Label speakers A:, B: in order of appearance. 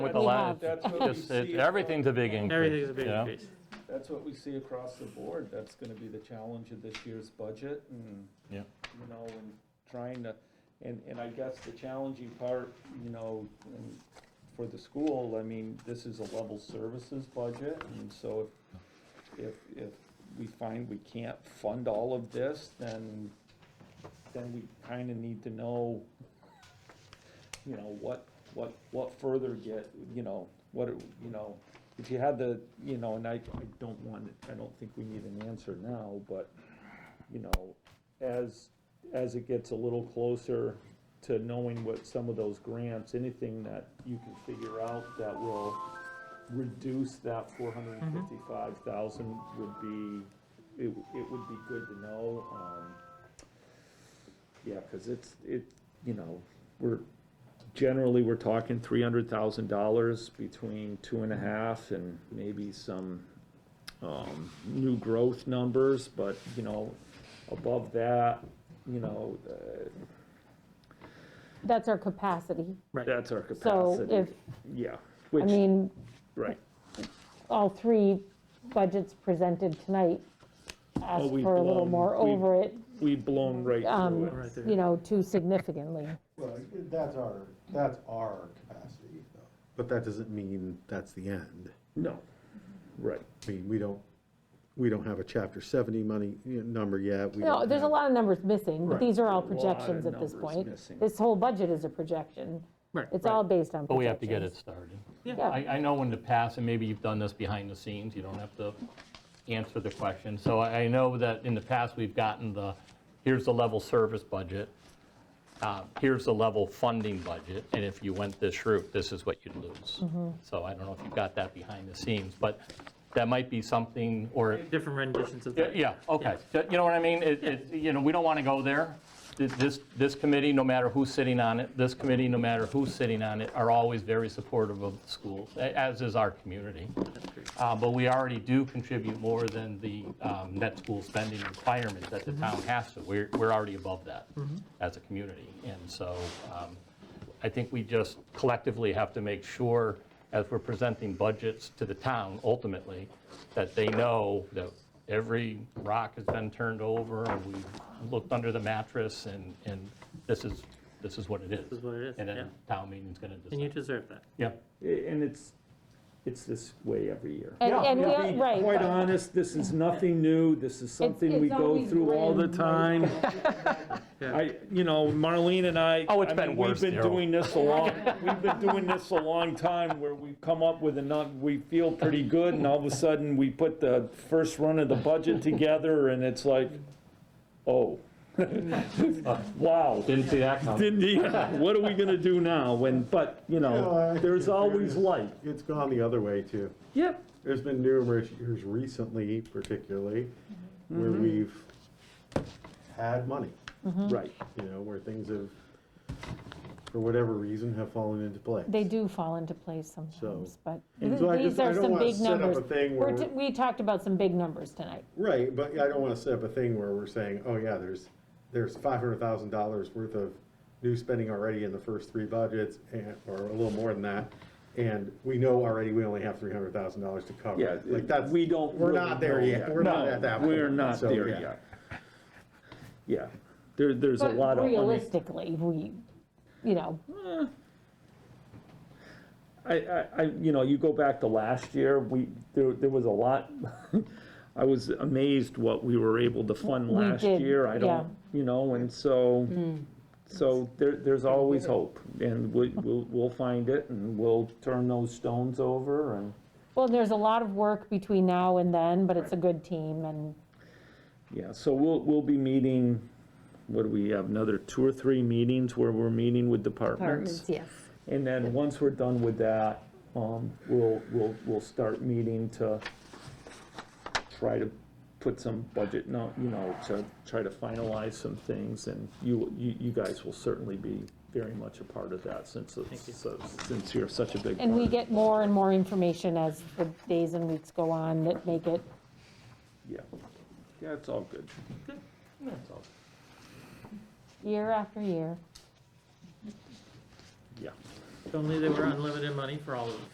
A: With the
B: We
A: la-
B: have.
A: it's
C: That's what we
A: just-
C: see
A: it- Everything's a big increase.
D: Everything's a big
A: you know?
D: increase.
C: That's what we see across the board. That's gonna be the challenge of this year's budget and,
A: Yeah.
C: you know, and trying to, and, and I guess the challenging part, you know, and for the school, I mean, this is a level services budget, and so if, if, if we find we can't fund all of this, then, then we kinda need to know, you know, what, what, what further get, you know, what, it- you know, if you had the, you know, and I, I don't want, I don't think we need an answer now, but, you know, as, as it gets a little closer to knowing what some of those grants, anything that you can figure out that will reduce that four hundred and fifty-five thousand would be, it, it would be good to know, um, yeah, cause it's, it, you know, we're, generally, we're talking three hundred thousand dollars between two and a half and maybe some, um, new growth numbers, but, you know, above that, you know, uh,
B: That's our capacity.
D: Right.
C: that's our
B: So
C: capacity.
B: if,
C: Yeah,
B: I
C: which,
B: mean,
C: right.
B: all three budgets presented tonight ask
C: we've
B: for a little
C: blown-
B: more
C: we've-
B: over it,
C: We've blown right through
B: um,
C: it.
D: Right there.
B: you know, too significantly.
E: Well, that's our, that's our capacity, though. But that doesn't mean that's the end.
C: No, right.
E: I mean, we don't, we don't have a chapter seventy money, you know, number yet. We
B: No,
E: don't
B: there's a
E: have-
B: lot of numbers missing, but
E: Right.
B: these are
C: A
B: all
C: lot of
B: projections at this
C: numbers
B: point.
C: missing.
B: This whole budget is a projection.
D: Right.
B: It's all based on projections.
A: But we have to get it started.
B: Yeah.
A: I, I know in the past, and maybe you've done this behind the scenes, you don't have to answer the question. So I I know that in the past, we've gotten the, here's the level service budget, uh, here's the level funding budget, and if you went this route, this is what you'd lose.
B: Mm-hmm.
A: So I don't know if you've got that behind the scenes, but that might be something, or
D: Different renditions of
A: Yeah,
D: that.
A: Yeah, okay. That- You know what I mean? It, it- you know, we don't want to go there. This- This, this committee, no matter who's sitting on it, this committee, no matter who's sitting on it, are always very supportive of the schools, a- as is our community. Uh, But we already do contribute more than the um, net school spending requirement that the town has to. We're, we're already above that as a community. And so um, I think we just collectively have to make sure, as we're presenting budgets to the town ultimately, that they know that every rock has been turned over, and we've looked under the mattress, and, and this is, this is what it is. This
D: is what it is,
A: And
D: yeah.
A: then town meeting's gonna
D: And you
A: decide.
D: deserve that.
A: Yeah,
C: A- And it's, it's this way every year.
B: And,
A: Yeah,
B: and
A: it'll
B: we, right.
C: Quite
B: but
C: honest, this is nothing new. This is something
B: it's
C: we go
B: always
C: through all the
B: been like
C: time. I, you know, Marlene and I.
A: Oh, it's
C: I
A: been
C: mean,
A: worse,
C: We've been
A: Daryl.
C: doing this a long, we've been doing this a long time where we come up with a, num- we feel pretty good and all of a sudden we put the first run of the budget together and it's like, oh. Wow.
A: didn't see that coming.
C: Didn't, yeah, what are we gonna do now? When, but, you know,
E: Yeah, I-
C: there's always light.
E: It's gone the other way, too.
C: Yep.
E: There's been numerous years recently, particularly, where
B: Mm-hmm.
E: we've had money,
C: Right.
E: you know, where things have, for whatever reason, have fallen into place.
B: They do fall into place sometimes, but
E: And so I
B: these
E: just- I
B: are
E: don't
B: some
E: wanna
B: big
E: set up a
B: numbers.
E: thing
B: We're
E: where
B: t-
E: we're-
B: We talked about some big numbers tonight.
E: Right, but I don't want to set up a thing where we're saying, oh yeah, there's, there's five hundred thousand dollars worth of new spending already in the first three budgets and, or a little more than that. And we know already we only have three hundred thousand dollars to cover.
C: Yeah,
E: it. Like that's.
C: we don't
E: We're
C: really
E: not there
C: know
E: yet.
C: yet.
E: We're not
C: No,
E: at that point.
C: We're not
E: So,
C: there
E: yeah.
C: yet. Yeah, there, there's a
B: But
C: lot of. money.
B: Realistically, we, you know,
C: I, I, I, you know, you go back to last year, we, there, there was a lot, I was amazed what we Mm. were able to fund last
B: did,
C: year. I
B: yeah.
C: don't, you know, and so, so there, there's always hope. And we, we'll, we'll find it and we'll turn those stones over and,
B: well, there's a lot of work between now and then, but it's a good team and
C: yeah, so we'll, we'll be meeting, what do we have, another two or three meetings where we're meeting with departments?
F: Apartments, yes.
C: And then, once we're done with that, um, we'll, we'll, we'll start meeting to try to put some budget, no, you know, to try to finalize some things, and you, you, you guys will certainly be very much a part of that, since, it's- so- since you're such a big part.
B: And we get more and more information as the days and weeks go on that make it,
C: Yeah, yeah, it's all good. It's all-
B: year after year,
C: Yeah,
D: If only they were unlimited money for all of us.